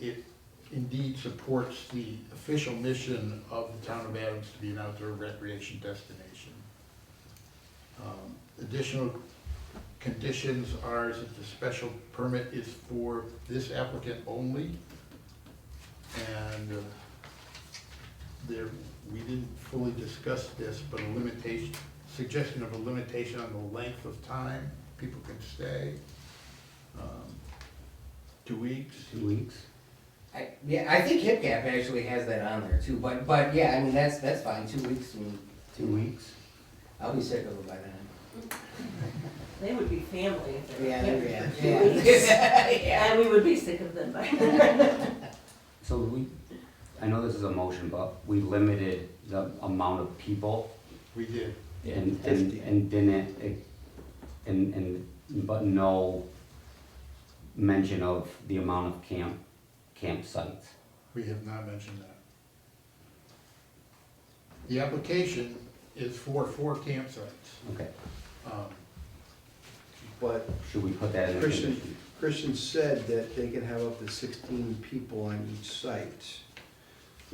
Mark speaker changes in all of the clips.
Speaker 1: it indeed supports the official mission of the town of Adams to be an outdoor recreation destination. Um, Additional conditions are that the special permit is for this applicant only. And uh, there, we didn't fully discuss this, but a limitation, suggestion of a limitation on the length of time people can stay. Um, Two weeks?
Speaker 2: Two weeks?
Speaker 3: I, yeah, I think HipCap actually has that on there too, but, but yeah, I mean, that's, that's fine, two weeks, I mean,
Speaker 2: Two weeks?
Speaker 3: I'll be sick of it by then.
Speaker 4: They would be family if they were
Speaker 3: Yeah,
Speaker 4: here
Speaker 3: yeah,
Speaker 4: for two weeks.
Speaker 3: yeah. Yeah.
Speaker 4: And we would be sick of them by then.
Speaker 2: So we, I know this is a motion, but we limited the amount of people
Speaker 1: We did.
Speaker 2: and, and,
Speaker 5: 50.
Speaker 2: and didn't, eh, and, and, but no mention of the amount of camp, campsites.
Speaker 1: We have not mentioned that. The application is for four campsites.
Speaker 2: Okay,
Speaker 1: Um,
Speaker 5: But
Speaker 2: should we put that in the
Speaker 5: Christian-
Speaker 2: condition?
Speaker 5: Christian said that they can have up to sixteen people on each site.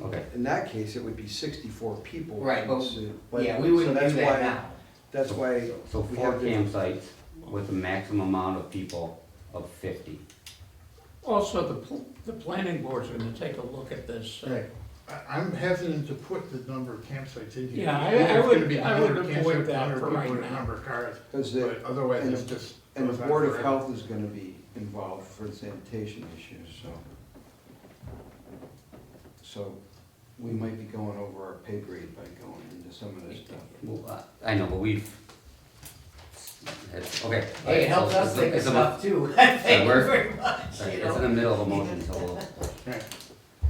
Speaker 2: Okay,
Speaker 5: In that case, it would be sixty-four people.
Speaker 3: Right, but-
Speaker 5: So-
Speaker 3: Yeah, we
Speaker 5: so
Speaker 3: wouldn't do
Speaker 5: that's
Speaker 3: that
Speaker 5: why-
Speaker 3: now.
Speaker 5: That's why.
Speaker 2: so
Speaker 5: we
Speaker 2: four
Speaker 5: have to-
Speaker 2: campsites with a maximum amount of people of fifty.
Speaker 6: Also, the, pl- the planning board's gonna take a look at this. uh,
Speaker 5: Right.
Speaker 1: I- I'm hesitant to put the number of campsites in here.
Speaker 6: Yeah, I-
Speaker 1: Either it's
Speaker 6: I would-
Speaker 1: gonna be
Speaker 6: I would
Speaker 1: 100
Speaker 6: avoid
Speaker 1: campsites,
Speaker 6: that
Speaker 1: 100
Speaker 6: for
Speaker 1: people,
Speaker 6: right
Speaker 1: or
Speaker 6: now.
Speaker 1: Number of cars,
Speaker 5: Because
Speaker 1: but
Speaker 5: the,
Speaker 1: otherwise
Speaker 5: and
Speaker 1: it's
Speaker 5: the-
Speaker 1: just.
Speaker 5: and the
Speaker 1: goes on
Speaker 5: Board of
Speaker 1: forever.
Speaker 5: Health is gonna be involved for sanitation issues, so. So we might be going over our pay grade by going into some of this stuff.
Speaker 2: Well, I I know, but we've, it's, okay.
Speaker 3: Hey, it helps
Speaker 2: So
Speaker 3: us
Speaker 2: it's a-
Speaker 3: think of
Speaker 2: it's a-
Speaker 3: stuff too, thank you
Speaker 2: work?
Speaker 3: very much,
Speaker 2: Sorry,
Speaker 3: you
Speaker 2: It's in
Speaker 3: know.
Speaker 2: the middle of a motion, so we'll-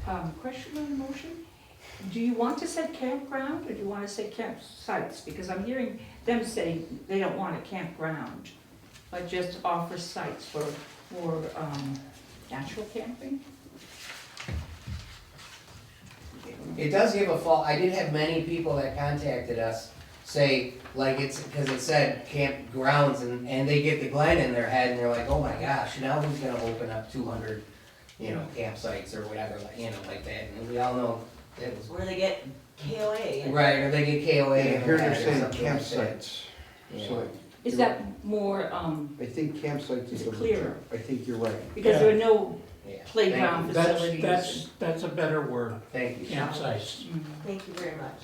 Speaker 7: Um, question on the motion? Do you want to say campground or do you want to say campsites? Because I'm hearing them say they don't want a campground, but just offer sites for, for, um, natural camping?
Speaker 3: It does give a fall, I did have many people that contacted us say, like, it's, cause it said campgrounds and, and they get the Glen in their head and they're like, oh my gosh, now who's gonna open up two hundred, you know, campsites or whatever, like, you know, like that, and we all know that was.
Speaker 4: Where they get KOA. and-
Speaker 3: Right, or they get KOA.
Speaker 5: And here they're
Speaker 3: or
Speaker 5: saying
Speaker 3: something like that.
Speaker 5: campsites, so
Speaker 7: Is that more, um,
Speaker 5: I think campsites is.
Speaker 7: It's
Speaker 5: the-
Speaker 7: clearer.
Speaker 5: I think you're right.
Speaker 7: because there are no
Speaker 3: Yeah.
Speaker 7: playground
Speaker 6: That's,
Speaker 7: facilities?
Speaker 6: that's, that's a better word,
Speaker 3: Thank you.
Speaker 6: campsites.
Speaker 7: Mm.
Speaker 4: Thank you very much.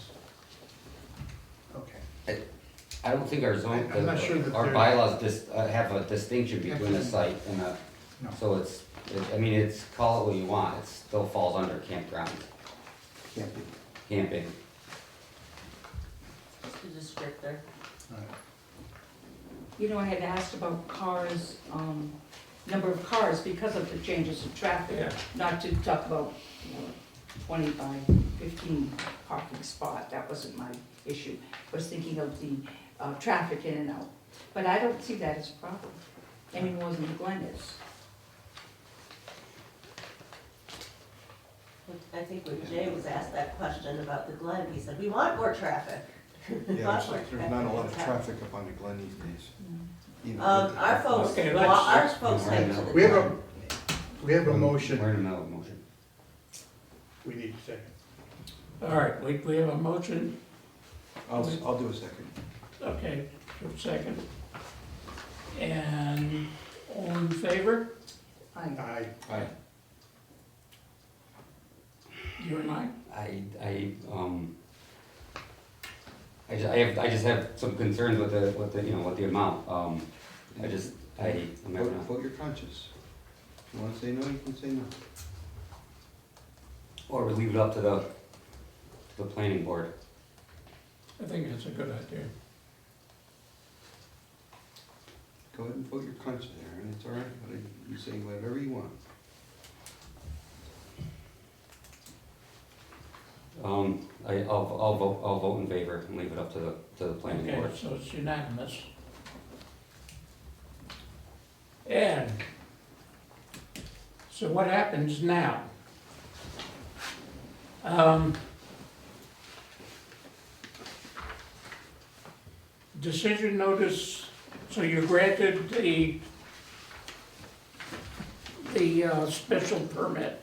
Speaker 1: Okay.
Speaker 2: I don't think our zone,
Speaker 1: I'm not sure that
Speaker 2: our
Speaker 1: they're-
Speaker 2: bylaws dis, uh, have a distinction between a site and a,
Speaker 1: No.
Speaker 2: so it's, it- I mean, it's, call it what you want, it still falls under campground,
Speaker 5: Can't be.
Speaker 2: camping.
Speaker 4: Just a descriptor.
Speaker 1: All right.
Speaker 7: You know, I had asked about cars, um, number of cars because of the changes in traffic,
Speaker 6: Yeah.
Speaker 7: not to talk about, you know, twenty by fifteen parking spot, that wasn't my issue. I was thinking of the, uh, traffic in and out, but I don't see that as a problem, any more than the Glen is.
Speaker 4: I think when Jay was asked that question about the Glen, he said, we want more traffic. We
Speaker 5: Yeah,
Speaker 4: want
Speaker 5: there's,
Speaker 4: more
Speaker 5: there's not a lot of
Speaker 4: Yeah.
Speaker 5: traffic Mm. up on the Glen these days. You know,
Speaker 4: Um,
Speaker 5: with-
Speaker 4: our folks,
Speaker 6: Okay,
Speaker 4: well,
Speaker 6: let's-
Speaker 4: our folks
Speaker 2: We're in
Speaker 4: went
Speaker 2: the middle.
Speaker 4: to the.
Speaker 1: We have a, we have a motion.
Speaker 2: We're in the middle of a motion.
Speaker 1: We need a second.
Speaker 6: All right, we, we have a motion,
Speaker 5: I'll, I'll do a second.
Speaker 6: okay, for a second. And all in favor,
Speaker 7: I,
Speaker 1: I,
Speaker 5: Aye.
Speaker 6: you and I?
Speaker 2: I, I, um, I just, I have, I just have some concerns with the, with the, you know, with the amount, um, I just, I, I'm
Speaker 5: Vote,
Speaker 2: having a-
Speaker 5: vote your conscience. If you wanna say no, you can say no.
Speaker 2: or we leave it up to the, to the planning board.
Speaker 6: I think that's a good idea.
Speaker 5: Go ahead and vote your conscience, Aaron, it's all right, but I- you say whatever you want.
Speaker 2: Um, I, I'll, I'll vote, I'll vote in favor and leave it up to the, to the planning
Speaker 6: Okay,
Speaker 2: board.
Speaker 6: so it's unanimous. And, so what happens now? Um, Decision notice, so you granted the, the uh, special permit